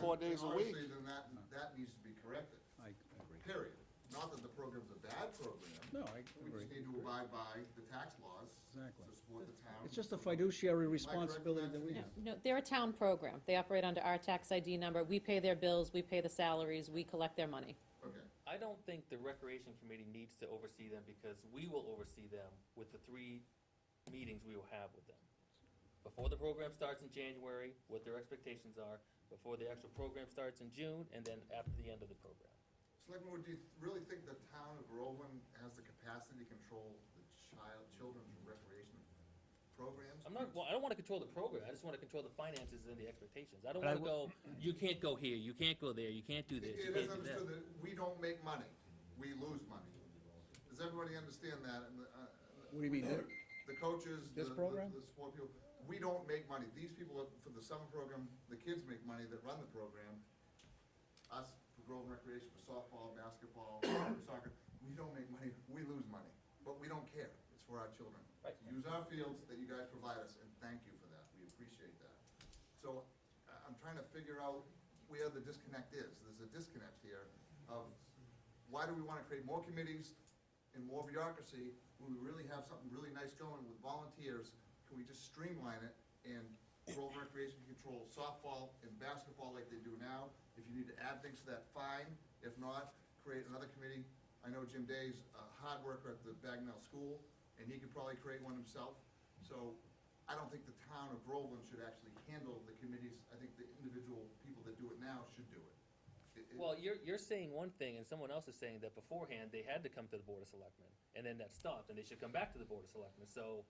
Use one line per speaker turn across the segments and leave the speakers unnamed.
four days a week.
Honestly, then that, that needs to be corrected,
I agree.
period. Not that the program's a bad program.
No, I
We just
agree.
need to abide by the tax laws
Exactly.
to support the town.
It's just a fiduciary
correct,
responsibility that we
Matt?
have.
No.
No, they're a town program. They operate under our tax ID number. We pay their bills, we pay the salaries, we collect their money.
Okay,
I don't think the recreation committee needs to oversee them because we will oversee them with the three meetings we will have with them. Before the program starts in January, what their expectations are, before the actual program starts in June, and then after the end of the program.
Selectman Wood, do you really think the town of Groveland has the capacity to control the child, children's recreation programs?
I'm not, well, I don't wanna control the program, I just wanna control the finances and the expectations. I don't
But I
wanna go, you can't go here, you can't go there, you can't do
It
this, you
it is
can't do
understood
that.
that we don't make money, we lose money. Does everybody understand that? And, the, uh,
What do you mean? They're-
the coaches, the,
This
the
program?
the sport people, we don't make money. These people, are- for the summer program, the kids make money that run the program. Us, for Groveland Recreation, for softball, basketball, soccer, we don't make money, we lose money. But we don't care, it's for our children.
Right.
Use our fields that you guys provide us, and thank you for that, we appreciate that. So, I- I'm trying to figure out where the disconnect is. There's a disconnect here of why do we wanna create more committees and more bureaucracy when we really have something really nice going with volunteers? Can we just streamline it and Grove Recreation control softball and basketball like they do now? If you need to add things to that, fine. If not, create another committee. I know Jim Day's a hard worker at the Bagnell School, and he could probably create one himself. So I don't think the town of Groveland should actually handle the committees. I think the individual people that do it now should do it. It- it-
Well, you're, you're saying one thing, and someone else is saying that beforehand, they had to come to the Board of Selectmen, and then that stopped, and they should come back to the Board of Selectmen, so,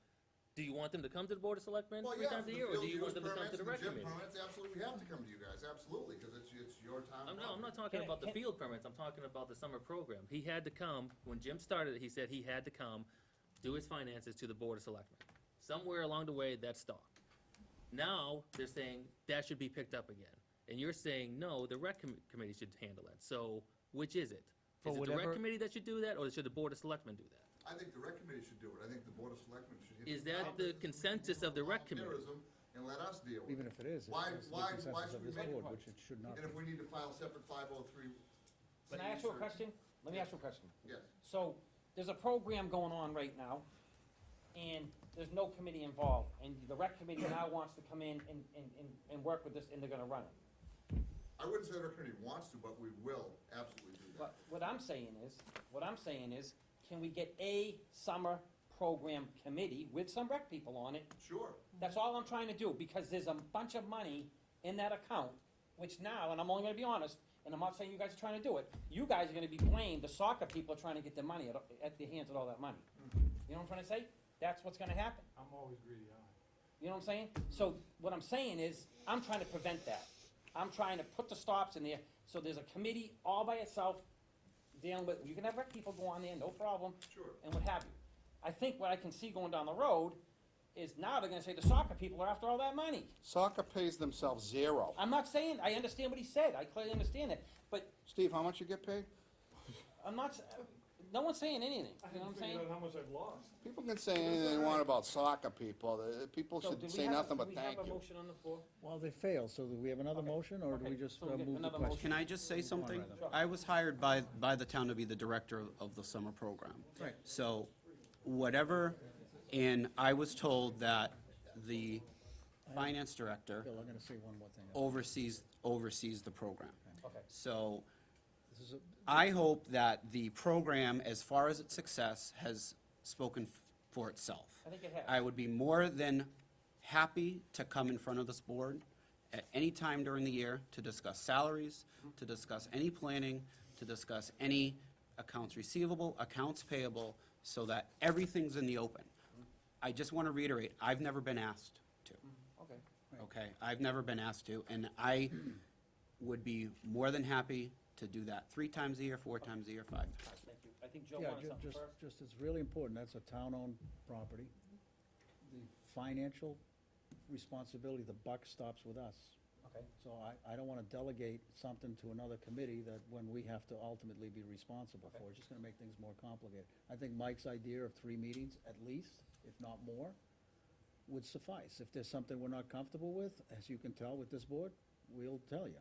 do you want them to come to the Board of Selectmen
Well,
three
yeah,
times
for
a
the
year, or do
field
you
use
want them to come
permits
to the
and
rec
gym
committee?
permits, absolutely, we have to come to you guys, absolutely, because it's, it's your town.
I'm, no, I'm not
property.
talking
Can I-
about the
can-
field permits, I'm talking about the summer program. He had to come, when Jim started it, he said he had to come, do his finances to the Board of Selectmen. Somewhere along the way, that stopped. Now, they're saying that should be picked up again, and you're saying, no, the rec com- committee should handle it, so, which is it?
For
Is it the rec
whatever-
committee that should do that, or should the Board of Selectmen do that?
I think the rec committee should do it, I think the board of selectmen should.
Is that the consensus of the rec committee?
Volunteerism, And let us deal with it.
Even if it is,
Why,
it's the
why, why
consensus
should
of
we
this
make?
board, which it should not be.
And if we need to file separate five oh three.
Can I ask you a question? Let me ask you a question.
Yes,
So, there's a program going on right now, and there's no committee involved, and the rec committee now wants to come in and, and, and, and work with this, and they're gonna run it.
I wouldn't say the rec committee wants to, but we will absolutely do that.
But what I'm saying is, what I'm saying is, can we get a summer program committee with some rec people on it?
Sure,
That's all I'm trying to do, because there's a bunch of money in that account, which now, and I'm only gonna be honest, and I'm not saying you guys are trying to do it, you guys are gonna be blamed, the soccer people are trying to get their money at, at the hands of all that money. You know what I'm trying to say? That's what's gonna happen.
I'm always greedy, aren't
You know what I'm saying? So what I'm saying is, I'm trying to prevent that. I'm trying to put the stops in there, so there's a committee all by itself dealing with, you can have rec people go on there, no problem,
sure.
and what have you. I think what I can see going down the road is now they're gonna say the soccer people are after all that money.
Soccer pays themselves zero.
I'm not saying, I understand what he said, I clearly understand that, but
Steve, how much you get paid?
I'm not, s- no one's saying anything,
I? I
you know what I'm
haven't figured out
saying?
how much I've lost.
People can say anything they want about soccer people. The- People
So do
should
we
say
have a-
nothing
do
but
we have
thank
a
you.
motion on the floor?
Well, they fail, so do we have another motion, or do we
Okay,
just
so
uh,
we get
move the
another
question?
Can I just say something?
rather.
I was hired by, by the town to be the director of- of the summer program.
Right.
So whatever, and I was told that the finance
Bill,
director
I'm gonna say one more
Oh,
thing.
oversees, oversees the program.
Okay.
So
This is a-
I hope that the program, as far as its success, has spoken f- for itself.
I think it has.
I would be more than happy to come in front of this board at any time during the year to discuss salaries,
Mm-hmm.
to discuss any planning, to discuss any accounts receivable, accounts payable, so that everything's in the open.
Mm-hmm.
I just want to reiterate, I've never been asked to
Okay.
okay? I've never been asked to, and I would be more than happy to do that three times a year, four times a year, five times.
Thank you. I think Joe
Yeah,
wanted
ju-
something
just,
first.
just, it's really important, that's a town-owned property. The financial responsibility, the buck stops with us.
Okay.
So I, I don't wanna delegate something to another committee that, when we have to ultimately be responsible for, it's just gonna make things more complicated. I think Mike's idea of three meetings, at least, if not more, would suffice. If there's something we're not comfortable with, as you can tell with this board, we'll tell you.